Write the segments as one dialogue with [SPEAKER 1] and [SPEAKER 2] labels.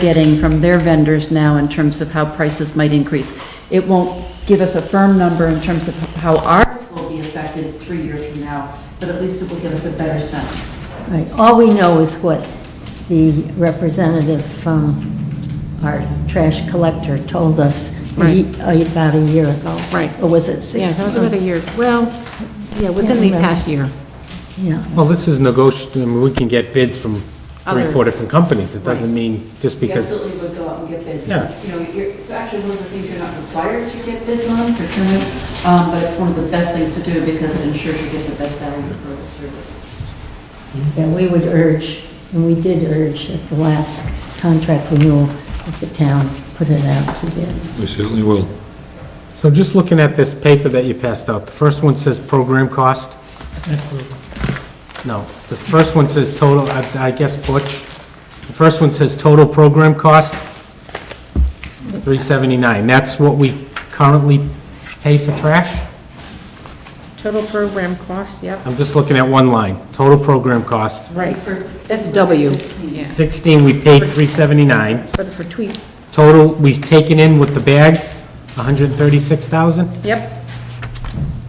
[SPEAKER 1] getting from their vendors now in terms of how prices might increase. It won't give us a firm number in terms of how ours will be affected three years from now, but at least it will give us a better sense.
[SPEAKER 2] Right, all we know is what the representative from our trash collector told us a ye- about a year ago.
[SPEAKER 3] Right.
[SPEAKER 2] Or was it six?
[SPEAKER 3] Yeah, that was about a year, well, yeah, within the
[SPEAKER 2] remember.
[SPEAKER 3] past year.
[SPEAKER 2] months? Yeah,
[SPEAKER 4] Well, this is negotiable, I mean, we can get bids from three,
[SPEAKER 3] Other-
[SPEAKER 4] four different companies. It doesn't mean just
[SPEAKER 5] We
[SPEAKER 4] because,
[SPEAKER 5] absolutely would go out and get bids.
[SPEAKER 4] Yeah.
[SPEAKER 5] You know, you're, so actually, one of the things you're not required to get bids on, procurement, um, but it's one of the best things to do because it ensures you get the best value for the service.
[SPEAKER 2] and we would urge, and we did urge at the last contract renewal that the town put it out to bid.
[SPEAKER 6] We certainly will.
[SPEAKER 4] so just looking at this paper that you passed out, the first one says program cost. No, the first one says total, I- I guess Butch. The first one says total program cost, 379. That's what we currently pay for trash?
[SPEAKER 3] Total program cost, yep.
[SPEAKER 4] I'm just looking at one line, total program cost.
[SPEAKER 3] Right,
[SPEAKER 5] That's for-
[SPEAKER 3] that's W,
[SPEAKER 5] for 16.
[SPEAKER 3] yeah.
[SPEAKER 4] 16, we paid 379.
[SPEAKER 3] But for tweet,
[SPEAKER 4] Total, we've taken in with the bags, 136,000?
[SPEAKER 3] yep,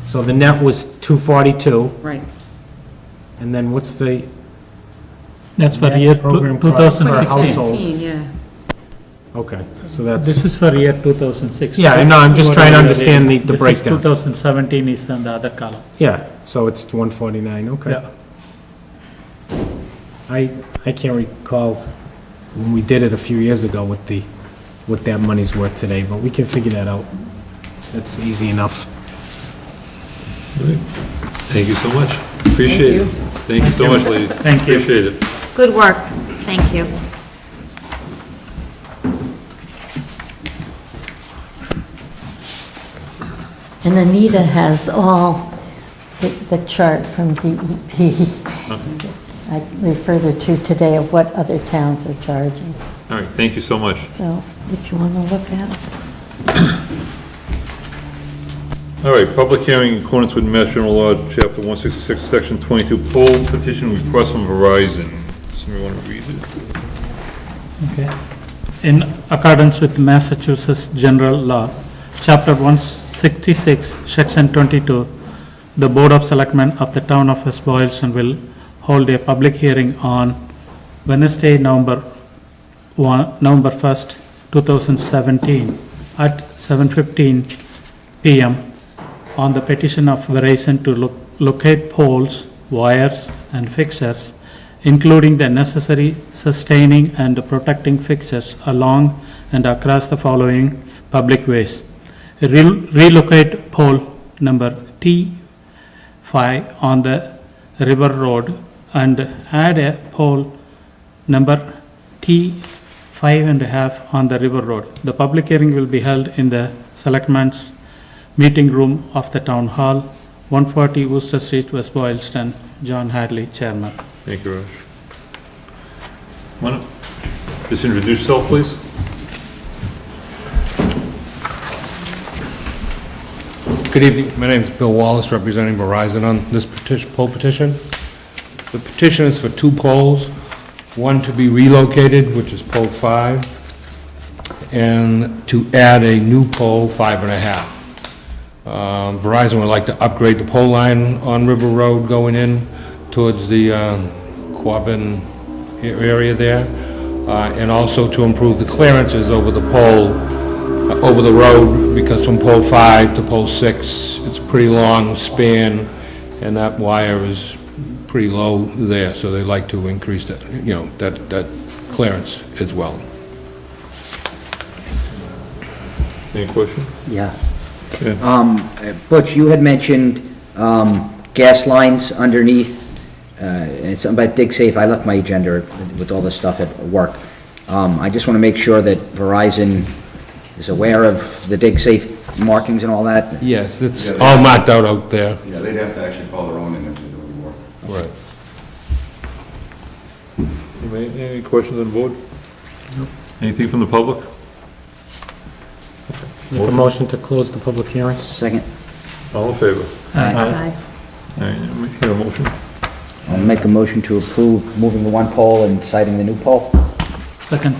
[SPEAKER 4] So the net was 242,
[SPEAKER 3] right.
[SPEAKER 4] and then what's the
[SPEAKER 7] That's for
[SPEAKER 4] Yeah,
[SPEAKER 7] year
[SPEAKER 4] program
[SPEAKER 7] two-
[SPEAKER 4] cost per
[SPEAKER 7] 2016.
[SPEAKER 4] household.
[SPEAKER 3] 2016, yeah.
[SPEAKER 4] Okay, so that's,
[SPEAKER 7] This is for year 2016.
[SPEAKER 4] Yeah, I know, I'm just trying to understand the- the breakdown.
[SPEAKER 7] This is 2017 is on the other column.
[SPEAKER 4] yeah, so it's 149, okay.
[SPEAKER 7] Yeah.
[SPEAKER 4] I, I can't recall when we did it a few years ago what the, what that money's worth today, but we can figure that out. That's easy enough.
[SPEAKER 6] Thank you so much. Appreciate it. Thank you so much, ladies.
[SPEAKER 7] Thank you.
[SPEAKER 6] Appreciate it.
[SPEAKER 8] Good work, thank you.
[SPEAKER 2] And Anita has all the- the chart from DEP I referred her to today of what other towns are charging.
[SPEAKER 6] All right, thank you so much.
[SPEAKER 2] So if you want to look at it.
[SPEAKER 6] All right, public hearing in accordance with Mass General Law, Chapter 166, Section 22, poll petition request from Verizon. Somebody want to read it?
[SPEAKER 7] Okay. In accordance with Massachusetts General Law, Chapter 166, Section 22, the Board of Selectmen of the Town of West Boylston will hold a public hearing on Wednesday, November 1, November 1st, 2017, at 7:15 PM on the petition of Verizon to lo- locate poles, wires, and fixtures, including the necessary sustaining and protecting fixtures along and across the following public ways. Rel- Relocate pole number T five on the River Road and add a pole number T five and a half on the River Road. The public hearing will be held in the Selectmen's Meeting Room of the Town Hall, 140 Worcester Street, West Boylston. John Hadley, Chairman.
[SPEAKER 6] Thank you, Raj. Why not? Just introduce yourself, please.
[SPEAKER 9] Good evening, my name is Bill Wallace, representing Verizon on this petition, poll petition. The petition is for two poles, one to be relocated, which is pole five, and to add a new pole, five and a half. Um, Verizon would like to upgrade the pole line on River Road going in towards the um, Quabbin a- area there, uh, and also to improve the clearances over the pole uh, over the road, because from pole five to pole six, it's a pretty long span, and that wire is pretty low there, so they like to increase that, you know, that, that clearance as well.
[SPEAKER 6] Any question?
[SPEAKER 10] Yeah.
[SPEAKER 6] Yeah.
[SPEAKER 10] Um, Butch, you had mentioned, um, gas lines underneath, uh, and something about dig safe. I left my agenda with all this stuff at work. Um, I just want to make sure that Verizon is aware of the dig safe markings and all that.
[SPEAKER 9] Yes, it's all marked out out there.
[SPEAKER 11] Yeah, they'd have to actually call their own in if they're doing work.
[SPEAKER 9] Right.
[SPEAKER 6] Any any questions on board? Anything from the public?
[SPEAKER 4] Make a motion to close the public hearing?
[SPEAKER 10] Second,
[SPEAKER 6] All in favor?
[SPEAKER 4] Aye.
[SPEAKER 6] All right, we hear a motion.
[SPEAKER 10] I'll make a motion to approve moving the one pole and citing the new pole.
[SPEAKER 7] Second.